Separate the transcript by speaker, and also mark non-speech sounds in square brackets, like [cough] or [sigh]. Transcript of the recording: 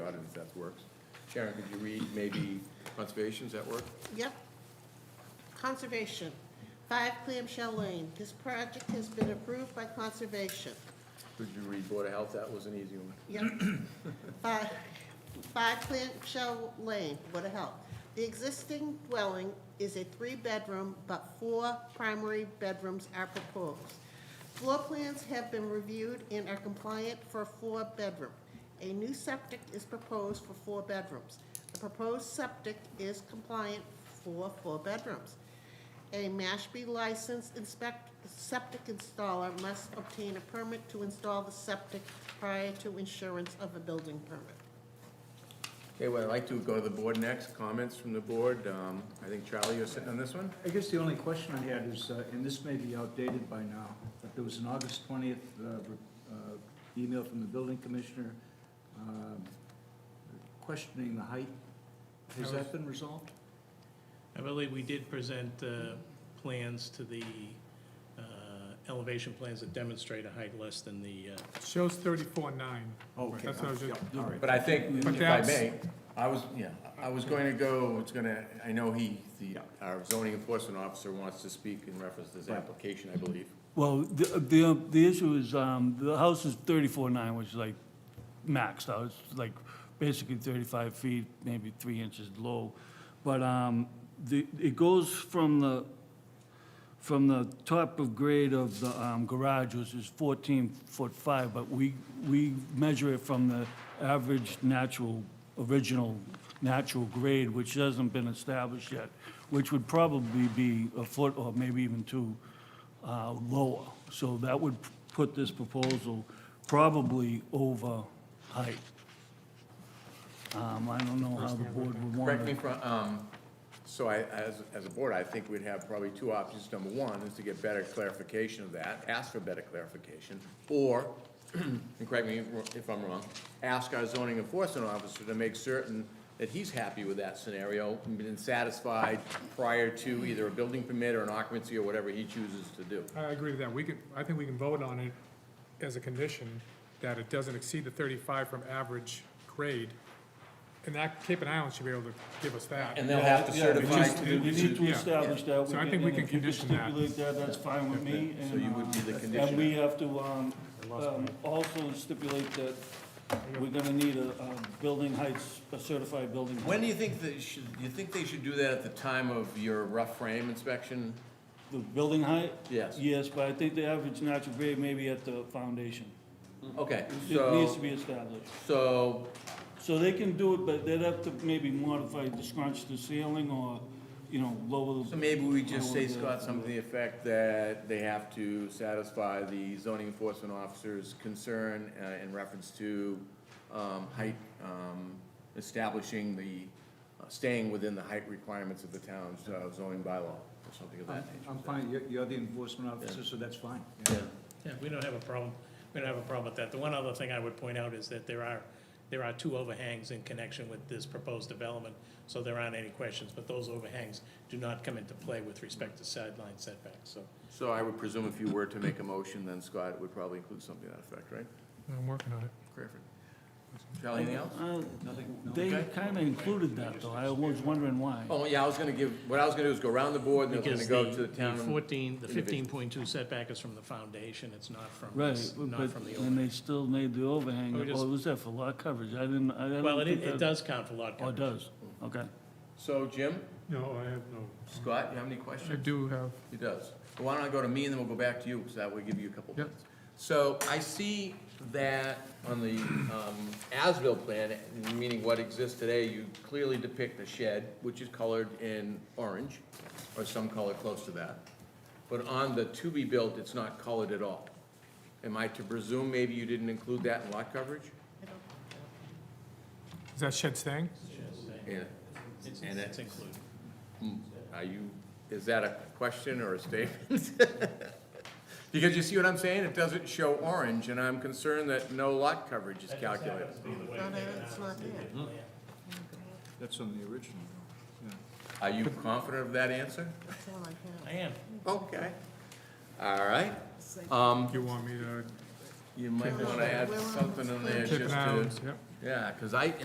Speaker 1: that works. Sharon, could you read maybe conservation, does that work?
Speaker 2: Yep. Conservation, 5 Clamshell Lane. This project has been approved by Conservation.
Speaker 1: Could you read Board of Health, that was an easy one.
Speaker 2: Yep. Five five Clamshell Lane, Board of Health. The existing dwelling is a three-bedroom, but four primary bedrooms are proposed. Floor plans have been reviewed and are compliant for a four-bedroom. A new septic is proposed for four bedrooms. The proposed septic is compliant for four bedrooms. A Mashpee licensed inspect, septic installer must obtain a permit to install the septic prior to insurance of a building permit.
Speaker 1: Okay, well, I'd like to go to the board next, comments from the board. Um, I think Charlie, you're sitting on this one?
Speaker 3: I guess the only question I had is, uh, and this may be outdated by now, but there was an August 20th uh, re- uh, email from the building commissioner um, questioning the height. Has
Speaker 4: That
Speaker 3: that been resolved?
Speaker 4: I believe we did present uh, plans to the uh, elevation plans that demonstrate a height less than the, uh,
Speaker 5: Shows thirty-four nine.
Speaker 3: Okay,
Speaker 5: That's what I was just-
Speaker 3: yeah, all right.
Speaker 1: But I think, if
Speaker 5: But
Speaker 1: I
Speaker 5: that's-
Speaker 1: may, I was, yeah, I was going to go, it's gonna, I know he, the, our zoning enforcement officer wants to speak in reference to this application, I believe.
Speaker 6: Well, the, the, the issue is, um, the house is thirty-four nine, which is like maxed out, it's like basically thirty-five feet, maybe three inches low. But, um, the, it goes from the, from the top of grade of the, um, garage, which is fourteen foot five, but we, we measure it from the average natural, original natural grade, which hasn't been established yet, which would probably be a foot or maybe even two, uh, lower. So that would p- put this proposal probably over height. Um, I don't know how the board would want to.
Speaker 1: Correct me if I'm, um, so I, as, as a board, I think we'd have probably two options. Number one is to get better clarification of that, ask for better clarification, or, [clears throat] and correct me if I'm wrong, ask our zoning enforcement officer to make certain that he's happy with that scenario and been satisfied prior to either a building permit or an occupancy or whatever he chooses to do.
Speaker 5: I agree with that. We could, I think we can vote on it as a condition that it doesn't exceed the thirty-five from average grade. And that, Cape and Island should be able to give us that.
Speaker 1: And they'll have to
Speaker 6: Yeah, yeah, we
Speaker 1: certify.
Speaker 6: just- You need to
Speaker 5: Yeah.
Speaker 6: establish that.
Speaker 5: So I think we
Speaker 6: and
Speaker 5: can
Speaker 6: if you
Speaker 5: condition that.
Speaker 6: Stipulate that, that's fine with me.
Speaker 1: So you would be the
Speaker 6: and, uh,
Speaker 1: condition.
Speaker 6: And we have to, um, um, also stipulate that we're gonna need a, a building heights, a certified building. height.
Speaker 1: When do you think they should, you think they should do that at the time of your rough frame inspection?
Speaker 6: The building height?
Speaker 1: Yes.
Speaker 6: Yes, but I think the average natural grade may be at the foundation.
Speaker 1: Okay,
Speaker 6: Mm-hmm. It needs to
Speaker 1: so,
Speaker 6: be established.
Speaker 1: so
Speaker 6: So they can do it, but they'd have to maybe modify, the scrunch the ceiling or, you know, lower. the-
Speaker 1: So maybe we just say,
Speaker 6: lower the-
Speaker 1: Scott, something to the effect that they have to satisfy the zoning enforcement officer's concern uh, in reference to um, height, um, establishing the, uh, staying within the height requirements of the town's uh, zoning bylaw, or something of
Speaker 3: I'm
Speaker 1: that nature.
Speaker 3: I'm fine, You're- you're the enforcement officer, so that's fine.
Speaker 1: Oh, Yeah.
Speaker 4: yeah, we don't have a problem, we don't have a problem with that. The one other thing I would point out is that there are, there are two overhangs in connection with this proposed development, so there aren't any questions, but those overhangs do not come into play with respect to sideline setbacks, so.
Speaker 1: So I would presume if you were to make a motion, then Scott, it would probably include something to that effect, right?
Speaker 5: I'm working on it.
Speaker 1: Perfect. Charlie, anything else?
Speaker 6: Uh,
Speaker 1: Nothing?
Speaker 6: They
Speaker 1: Okay.
Speaker 6: kinda included that though, I was wondering why.
Speaker 1: Oh, yeah, I was gonna give, what I was gonna do is go around the board, and then I was
Speaker 4: Because
Speaker 1: gonna
Speaker 4: the
Speaker 1: go to the town.
Speaker 4: the fourteen, the
Speaker 1: individual.
Speaker 4: fifteen point two setback is from the foundation, it's not from,
Speaker 6: Right,
Speaker 4: this- not
Speaker 6: but,
Speaker 4: from the
Speaker 6: and
Speaker 4: overhang.
Speaker 6: they still made the overhang,
Speaker 4: We just-
Speaker 6: oh, was that for lot coverage? I didn't, I didn't.
Speaker 4: Well, it, it does count for lot
Speaker 6: Oh, it
Speaker 4: coverage.
Speaker 6: does, okay.
Speaker 1: So, Jim,
Speaker 5: No, I have no.
Speaker 1: Scott, you have any questions?
Speaker 5: I do have,
Speaker 1: He does. Well, Why don't I go to me and then we'll go back to you, because that will give you a couple
Speaker 5: Yep.
Speaker 1: minutes. So I see that on the um, Asbill plan, meaning what exists today, you clearly depict a shed, which is colored in orange, or some color close to that. But on the to-be-built, it's not colored at all. Am I to presume maybe you didn't include that in lot coverage?
Speaker 5: is that shed staying?
Speaker 1: Yeah.
Speaker 4: It's,
Speaker 1: And
Speaker 4: it's
Speaker 1: it-
Speaker 4: included.
Speaker 1: Are you, is that a question or a statement? [laughs] Because you see what I'm saying? It doesn't show orange, and I'm concerned that no lot coverage is calculated.
Speaker 2: No, no, it's not there.
Speaker 3: That's on the original. though. Yeah.
Speaker 1: Are you confident of that answer?
Speaker 2: That's all I
Speaker 4: I am.
Speaker 1: Okay. All right.
Speaker 2: have.
Speaker 1: Um,
Speaker 5: You want me to
Speaker 1: you might wanna add something in there
Speaker 5: chip
Speaker 1: just
Speaker 5: it out?
Speaker 1: to,
Speaker 5: Yep.
Speaker 1: yeah, cause I,